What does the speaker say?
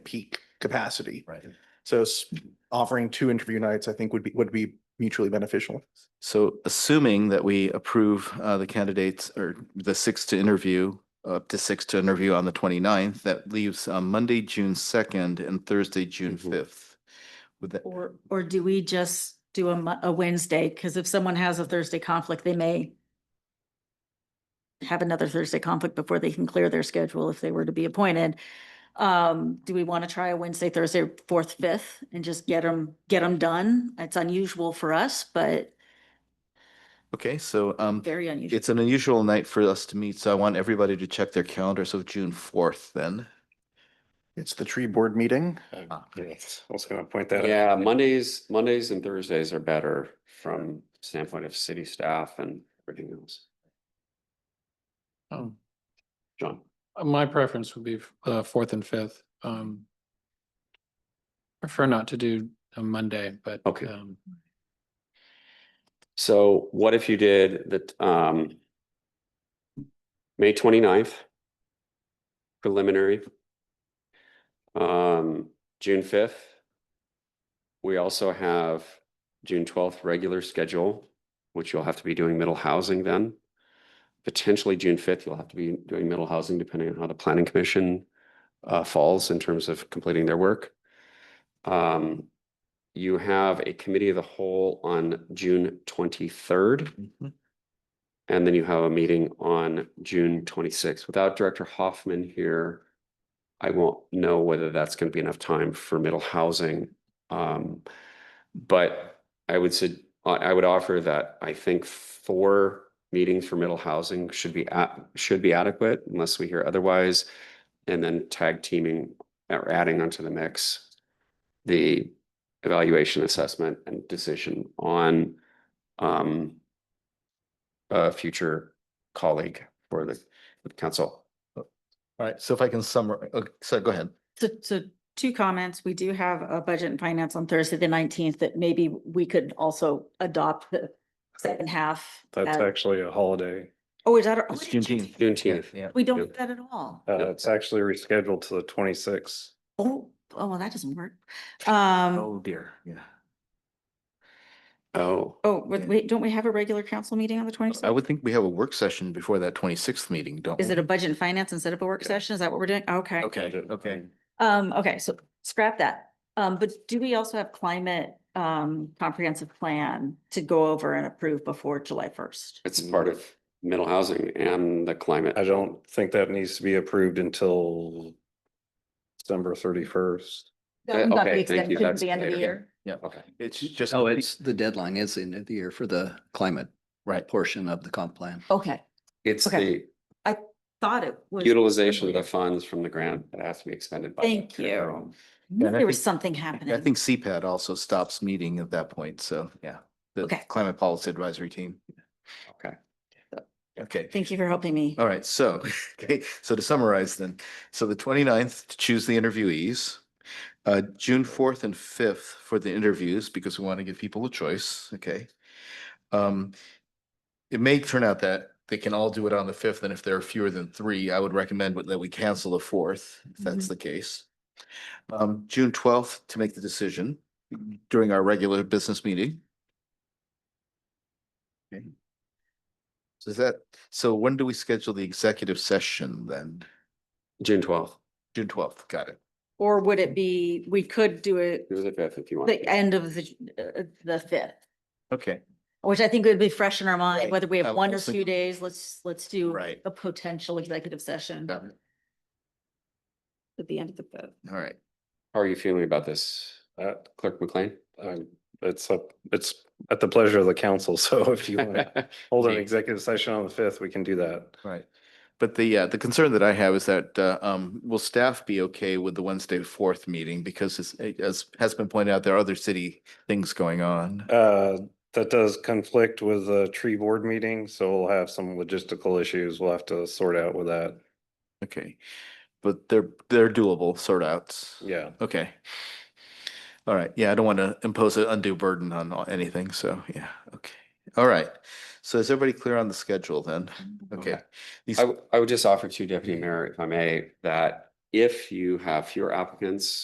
peak capacity. Right. So s- offering two interview nights, I think would be, would be mutually beneficial. So assuming that we approve uh, the candidates or the six to interview, up to six to interview on the 29th, that leaves uh, Monday, June 2nd and Thursday, June Mhm. 5th. Would that, Or, or do we just do a, Mo- a Wednesday? Because if someone has a Thursday conflict, they may have another Thursday conflict before they can clear their schedule if they were to be appointed. Um, do we want to try a Wednesday, Thursday, fourth, fifth, and just get them, get them done? It's unusual for us, but okay, so um, very unusual. it's an unusual night for us to meet, so I want everybody to check their calendars of June 4th then. It's the tree board meeting. Ah. Yes. I was gonna point that. out. Yeah, Mondays, Mondays and Thursdays are better from standpoint of city staff and everything else. Um, John, uh, my preference would be f- uh fourth and fifth. Um. Prefer not to do a Monday, but. Okay. um, so what if you did the, um, May 29th preliminary, um, June fifth. We also have June twelfth regular schedule, which you'll have to be doing middle housing then. Potentially June fifth, you'll have to be doing middle housing depending on how the planning commission uh falls in terms of completing their work. Um, you have a committee of the whole on June twenty-third. Mm-hmm. And then you have a meeting on June twenty-sixth. Without Director Hoffman here, I won't know whether that's going to be enough time for middle housing. Um, but I would say, I, I would offer that I think four meetings for middle housing should be at, should be adequate unless we hear otherwise. And then tag teaming or adding onto the mix, the evaluation, assessment and decision on, um, a future colleague for the for the council. All right, so if I can summarize, so go ahead. So, so two comments. We do have a budget and finance on Thursday, the nineteenth, that maybe we could also adopt the second half. That's as- actually a holiday. Oh, is that? our- oh, It's it is Juneteenth. Juneteenth. Yeah. We don't Yeah. do that at all. Uh, Yep. it's actually rescheduled to the twenty-sixth. Oh, oh, well, that doesn't work. Um, Oh dear, yeah. Oh, oh, but yeah. wait, don't we have a regular council meeting on the I twenty-sixth? would think we have a work session before that 26th meeting, don't we? Is it a budget and finance instead of a work Yeah. session? Is that what we're doing? Okay. Okay, okay. Um, okay, so scrap that. Um, but do we also have climate, um, comprehensive plan to go over and approve before July first? it's part of middle housing and the climate. I don't think that needs to be approved until December thirty-first. Uh, okay, thank you. To That's the end of the later. year? Okay. It's just. Oh, it's the deadline is the end of the year for the climate Right. portion of the comp plan. Okay, It's Okay. the thought it was. utilization of the funds from the grant that has to be expended. by the Thank you. town. Yeah, and I There was think- something I happening. think CPAD also stops meeting at that point, so, yeah. The Okay. Climate Policy Advisory Team. Okay. Okay. Thank you for helping me. All right, so, okay, so to summarize then, so the 29th to choose the interviewees. Uh, June fourth and fifth for the interviews because we want to give people a choice, okay? Um, it may turn out that they can all do it on the fifth, and if there are fewer than three, I would recommend that we cancel the fourth, if that's the case. Um, June twelfth to make the decision during our regular business meeting. Okay. So is that, so when do we schedule the executive session then? June twelfth, June twelfth, got it. Or would it be, we could do it it was a fifth if you want. the end of the, uh, the fifth, Okay. which I think would be fresh in our Right. mind, whether we I have one or was two thinking- days, let's, let's do Right. a potential executive session got it. at the end of the vote. All right. How are you feeling about this, Uh, Clerk McLean? um, it's up, it's at the pleasure of the council. So if you want to hold an executive session on the fifth, we can do that. Right. But the, uh, the concern that I have is that, uh, um, will staff be okay with the Wednesday the fourth meeting? Because as, eh, as has been pointed out, there are other city things going on. Uh, that does conflict with the tree board meeting, so we'll have some logistical issues we'll have to sort out with that. Okay. But they're, they're doable sort outs. Yeah. Okay. All right. Yeah, I don't want to impose an undue burden on all- anything. So, yeah, okay. All right. So is everybody clear on the schedule then? Okay. Okay. These- I, w- I would just offer to you, Deputy Mayor, if I may, that if you have fewer applicants